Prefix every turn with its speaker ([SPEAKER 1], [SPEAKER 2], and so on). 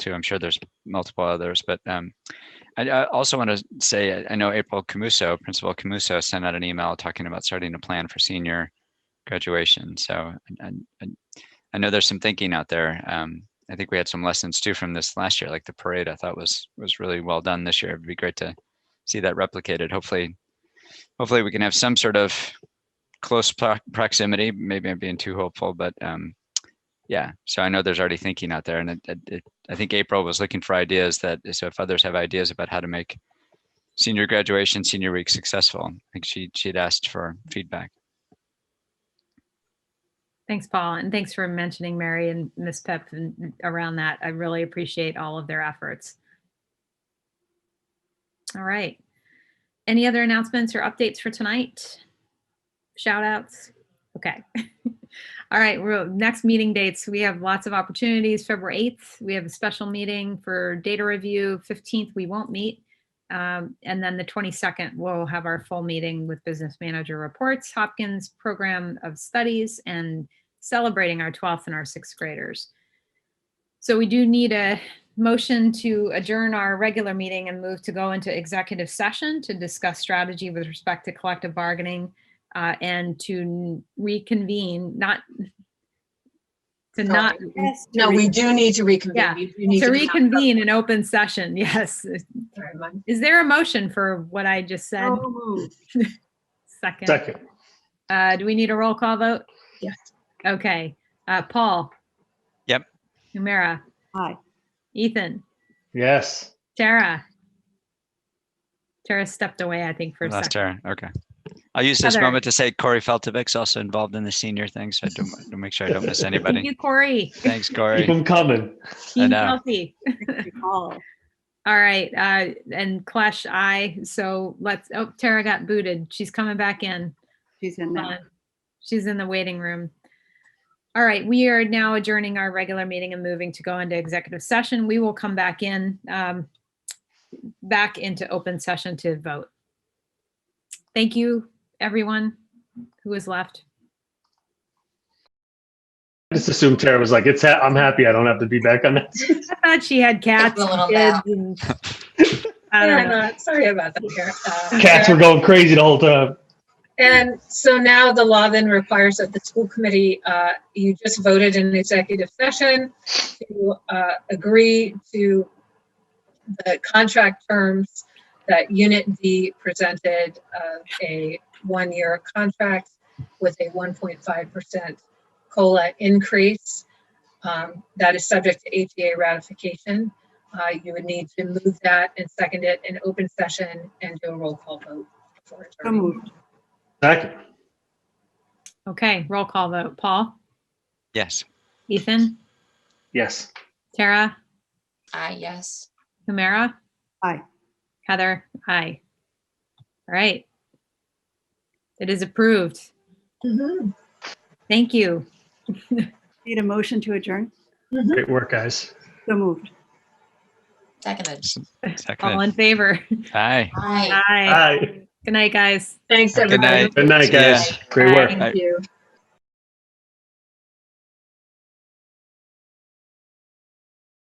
[SPEAKER 1] too. I'm sure there's multiple others, but um, I, I also want to say I- I know April Camuso, Principal Camuso, sent out an email talking about starting to plan for senior graduation. So and, and I know there's some thinking out there. Um, I think we had some lessons too from this last year, like the parade. I thought was was really well done this year. It'd be great to see that replicated. Hopefully, hopefully we can have some sort of close pro- proximity. Maybe I'm being too hopeful, but um, yeah. So I know there's already thinking out there, and it, it, it, I think April was looking for ideas that. So if others have ideas about how to make senior graduation, senior week successful, I think she she'd asked for feedback.
[SPEAKER 2] Thanks, Paul, and thanks for mentioning Mary and Miss Pep and around that. I really appreciate all of their efforts. All right. Any other announcements or updates for tonight? Shout outs? Okay. All right, we're, next meeting dates, we have lots of opportunities. February 8th, we have a special meeting for data review. 15th, we won't meet. Um, and then the 22nd, we'll have our full meeting with business manager reports, Hopkins Program of Studies, and celebrating our 12th and our sixth graders. So we do need a motion to adjourn our regular meeting and move to go into executive session to discuss strategy with respect to collective bargaining uh, and to reconvene, not to
[SPEAKER 3] No,
[SPEAKER 2] not.
[SPEAKER 3] No, we do need to
[SPEAKER 2] Yeah,
[SPEAKER 3] reconvene. You do need
[SPEAKER 2] To
[SPEAKER 3] to talk about
[SPEAKER 2] reconvene an open session, yes.
[SPEAKER 3] that, everyone.
[SPEAKER 2] Is there a motion for what I just said?
[SPEAKER 3] So moved.
[SPEAKER 2] Second.
[SPEAKER 4] Second,
[SPEAKER 2] Uh, do we need a roll call vote?
[SPEAKER 3] Yes.
[SPEAKER 2] Okay. Uh, Paul?
[SPEAKER 1] Yep.
[SPEAKER 2] Humira?
[SPEAKER 3] Aye.
[SPEAKER 2] Ethan?
[SPEAKER 4] yes.
[SPEAKER 2] Tara? Tara stepped away, I think, for a
[SPEAKER 1] Last
[SPEAKER 2] second.
[SPEAKER 1] turn. Okay. I'll use this
[SPEAKER 2] Heather.
[SPEAKER 1] moment to say Corey Feltovic's also involved in the senior thing, so I don't, want to make sure I don't miss
[SPEAKER 2] Thank
[SPEAKER 1] anybody.
[SPEAKER 2] you, Corey.
[SPEAKER 1] Thanks,
[SPEAKER 4] Keep
[SPEAKER 1] Corey.
[SPEAKER 4] them coming.
[SPEAKER 1] I
[SPEAKER 2] Team
[SPEAKER 1] know.
[SPEAKER 2] healthy.
[SPEAKER 5] Oh,
[SPEAKER 2] All right. Uh, and Clash, I. So let's, oh, Tara got booted. She's coming back in.
[SPEAKER 5] She's in
[SPEAKER 2] Hold
[SPEAKER 5] now.
[SPEAKER 2] on. She's in the waiting room. All right, we are now adjourning our regular meeting and moving to go into executive session. We will come back in, um, back into open session to vote. Thank you, everyone who is left.
[SPEAKER 4] I just assumed Tara was like, it's, ha- I'm happy I don't have to be back on that.
[SPEAKER 2] I thought she had cats.
[SPEAKER 3] a little
[SPEAKER 2] and kids and- I don't know.
[SPEAKER 3] Anna, Sorry about that. Tara. Uh,
[SPEAKER 4] Cats were
[SPEAKER 3] Tara.
[SPEAKER 4] going crazy the whole time.
[SPEAKER 3] And so now the law then requires that the school committee, uh, you just voted in executive session to uh, agree to the contract terms that Unit D presented of a one-year contract with a 1.5% COLA increase. Um, That is subject to ATA ratification. Uh, You would need to move that and second it in open session and do a roll call vote. for
[SPEAKER 5] So
[SPEAKER 3] adjournment.
[SPEAKER 5] moved.
[SPEAKER 4] Second,
[SPEAKER 2] Okay, roll call vote. Paul,
[SPEAKER 1] Yes.
[SPEAKER 2] Ethan,
[SPEAKER 4] yes.
[SPEAKER 2] Tara,
[SPEAKER 6] Ah, yes.
[SPEAKER 2] Humira?
[SPEAKER 5] Aye.
[SPEAKER 2] Heather? Aye. All right. It is approved.
[SPEAKER 3] Mhm.
[SPEAKER 2] Thank you.
[SPEAKER 5] Need a motion to adjourn?
[SPEAKER 4] Great work, guys.
[SPEAKER 5] So moved.
[SPEAKER 6] Seconded.
[SPEAKER 2] All
[SPEAKER 1] Second.
[SPEAKER 2] in favor?
[SPEAKER 1] Hi.
[SPEAKER 6] Aye.
[SPEAKER 2] Aye.
[SPEAKER 4] Hi.
[SPEAKER 2] Good night, guys.
[SPEAKER 3] Thanks, everybody.
[SPEAKER 1] night.
[SPEAKER 4] Good night,
[SPEAKER 1] Yeah.
[SPEAKER 4] guys. Great work.
[SPEAKER 3] Thank you.